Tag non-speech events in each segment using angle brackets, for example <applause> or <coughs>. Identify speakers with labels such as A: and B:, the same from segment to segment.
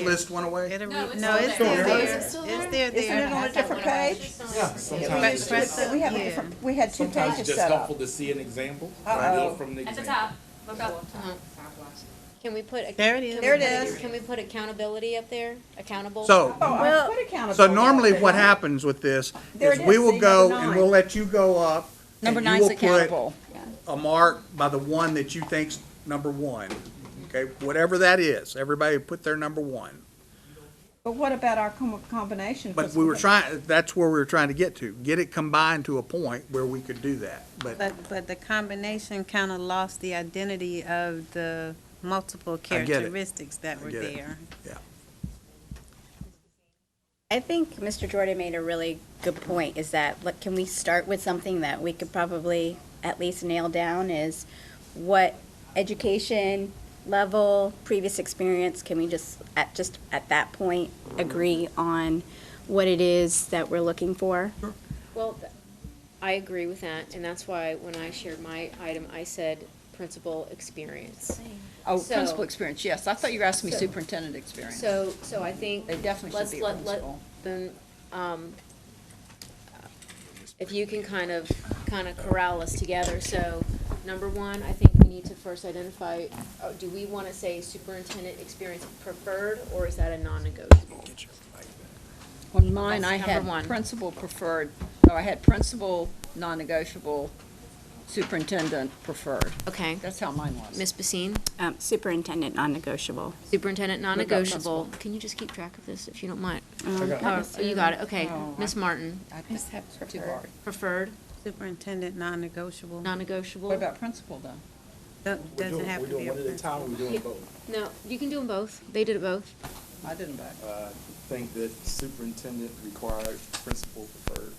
A: list went away?
B: It'll re-
C: No, it's
D: Oh,
B: No,
C: still
B: it's still
C: there.
B: there.
C: Is it
B: It's
C: still
B: there,
C: there?
D: Isn't it on
B: there.
D: a different page?
E: Yeah,
D: We
E: sometimes,
D: used
E: it's
B: But-
E: just-
D: to- we have a
B: yeah.
D: different, we had two
E: sometimes it's
D: pages
E: just
D: set up.
E: helpful to see an example.
D: Uh-oh.
E: Build from the
C: At the
E: example.
C: top, look up.
F: Can we put? ac-
B: There it is.
F: can we
D: There it
F: put-
D: is.
F: Can we put accountability up there? Accountable?
D: Oh,
A: So,
D: I put accountable.
A: so normally
D: there.
A: what happens with this
D: There
A: is
D: it
A: we
D: is,
A: will
D: see,
A: go
D: number
A: and
D: nine.
A: we'll let you go up. and
G: Number
A: you
G: nine's
A: will put
G: accountable.
A: A mark by the one that you think's number one, okay, whatever that is, everybody put their number one.
D: But what about our com- combination?
A: But we were trying, that's where we were trying to get to, get it combined to a point where we could do that, but
B: But, but the combination kind of lost the identity of the multiple
A: get it.
B: characteristics that were
A: get it.
B: there.
G: I think Mr. Jordan made a really good point, is that, look, can we start with something that we could probably at least nail down is what education level, previous experience, can we just, at, just at that point, agree on what it is that we're looking for?
F: Well, th- I agree with that, and that's why when I shared my item, I said principal experience.
G: Oh,
F: So- principal
G: experience, yes. I thought you were asking
F: me So-
G: superintendent experience.
F: So, so I think.
G: They definitely should
F: let's
G: be a
F: let- let-
G: principal.
F: Then, um, if you can kind of, kind of corral us together, so, number one, I think we need to first identify, oh, do we wanna say superintendent experience preferred, or is that a non-negotiable?
H: On mine, I
F: That's number
H: had
F: one.
H: principal preferred, or I had principal, non-negotiable, superintendent preferred.
F: Okay,
H: That's how mine was.
F: Ms. Basine?
G: Um, superintendent, non-negotiable.
F: Superintendent, non-negotiable.
H: principal.
F: Can you just keep track of this if you don't mind?
G: Um,
E: got it.
F: Oh, you got it, okay.
H: Oh,
F: Ms. Martin,
H: I think it's Too hard.
F: preferred,
B: Superintendent, non-negotiable.
H: What
F: non-negotiable?
H: about principal, though?
B: Don't-
E: We're
B: Doesn't
E: doing-
B: have
E: we're
B: to
E: doing
B: be a
E: one at a
B: principal.
E: time, we're doing both.
F: No, you can do them both. They did it both.
H: I didn't vote.
E: Uh, think that superintendent required, principal preferred.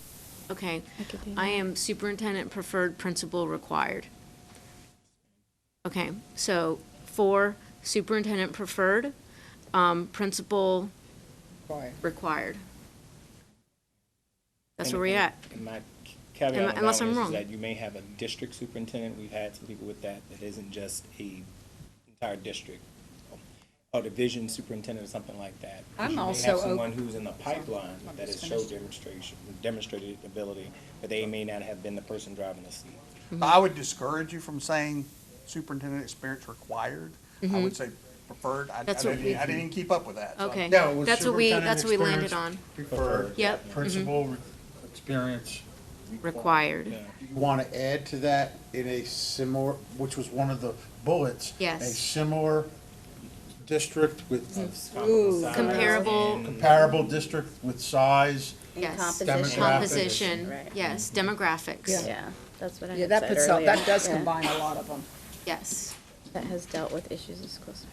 F: Okay.
G: I could do
F: I am superintendent preferred, principal required. Okay, so for superintendent preferred, um, principal
H: Sorry.
F: required. That's
I: And-
F: where we're
I: and-
F: at.
I: And my caveat
F: Am-
I: on that
F: unless
I: one
F: I'm
I: is-
F: wrong.
I: is that you may have a district superintendent, we've had some people with that, that isn't just a entire district, or division superintendent or something like that.
H: I'm
I: You may have
H: also op-
I: Someone who's in the pipeline
H: I'm
I: that
H: just
I: has showed
H: finished.
I: demonstration, demonstrated ability, but they may not have been the person driving the seat.
A: I would discourage you from saying superintendent experience required. I would say preferred. I, I
F: Mm-hmm. That's what
A: didn't,
F: we-
A: I didn't even keep up with that. so-
F: Okay.
J: Yeah, it was
F: That's what we,
J: superintendent
F: that's what we landed on.
J: experience Preferred.
F: Yep.
J: Principal re-
B: Mm-hmm.
J: experience.
F: Required.
J: Do you want to add to that in a similar, which was one of the bullets?
F: Yes.
J: A similar district with,
H: Mm.
F: Comparable,
J: comparable district with size,
F: yes.
G: composition.
F: Composition,
G: Right.
F: yes, demographics,
G: Yeah, that's what I
H: Yeah,
G: had
H: that
G: said
H: puts, all-
G: earlier.
H: that does
G: Yeah.
H: combine a lot of them.
F: yes.
G: That has dealt with issues in schools.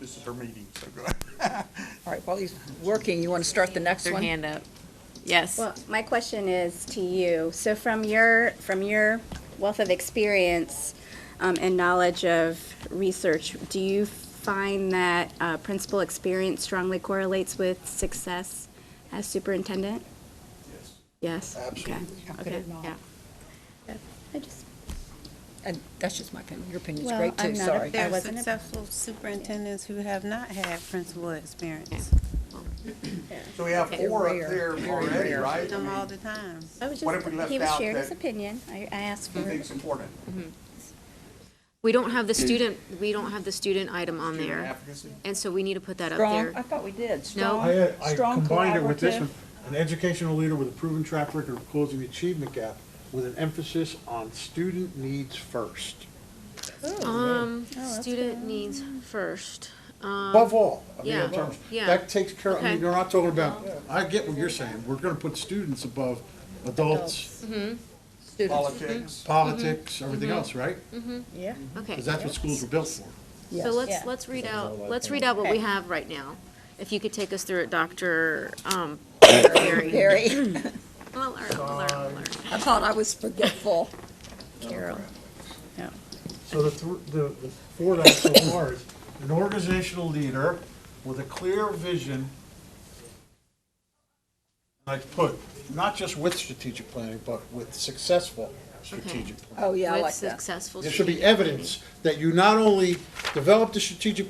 A: This is her meeting, so go ahead.
H: All right, while he's working, you want to start the next
F: Their
H: one?
F: hand up, yes.
G: Well, my question is to you. So from your, from your wealth of experience um, and knowledge of research, do you find that uh, principal experience strongly correlates with success as superintendent? Yes. Yes? Absolutely.
H: How could
F: Okay,
H: it not?
F: yeah.
G: I just,
H: And that's just my opinion. Your opinion's
G: Well,
H: great,
G: I'm
H: too,
G: not a
H: sorry.
G: fan.
B: There are
G: wasn't a-
B: successful superintendents who have not had principal experience.
A: So we have
F: Okay.
A: four up
H: Rare,
A: there
H: very
A: already,
H: rare.
A: right? I
B: Them all
A: mean,
B: the time.
G: I was
A: What if we
G: just, he
A: left
G: was
A: out
G: sharing
A: that-
G: his opinion. I, I asked
A: Who
G: for.
A: thinks important?
F: We don't have the student, we don't have the student item on
A: Student
F: there,
A: advocacy?
F: and so we need to put that up
H: Strong, I
F: there.
H: thought we did.
J: I,
H: Strong,
J: had- I
H: strong
J: combined it with this
H: collaborative.
J: one, an educational leader with a proven track record of closing the achievement gap with an emphasis on student needs first.
F: Um,
H: Oh,
F: student needs first.
J: Above all, I mean,
F: yeah,
J: in terms,
F: yeah.
J: that takes care, I mean,
F: Okay.
J: you're not talking about, I get what you're saying, we're gonna put students above adults,
A: Politics.
F: Mm-hmm.
J: politics, everything else, right?
H: Yeah.
F: Okay,
J: Because that's what schools were built for.
F: so
H: Yeah.
F: let's, let's read out, let's read out what we have right now. If you could take us through it, Dr. um,
H: <coughs>
F: Perry.
H: Very.
F: <coughs> Well, alert, alert, alert.
H: I thought I was forgetful.
G: <laughs>
J: So the, thr- the, the four that so far is an organizational leader with a clear vision. Like put, not just with strategic planning, but with successful strategic plan.
H: Oh, yeah, I
F: With
H: like that.
F: Successful.
J: There should be
F: strategic-
J: evidence that you not only developed a strategic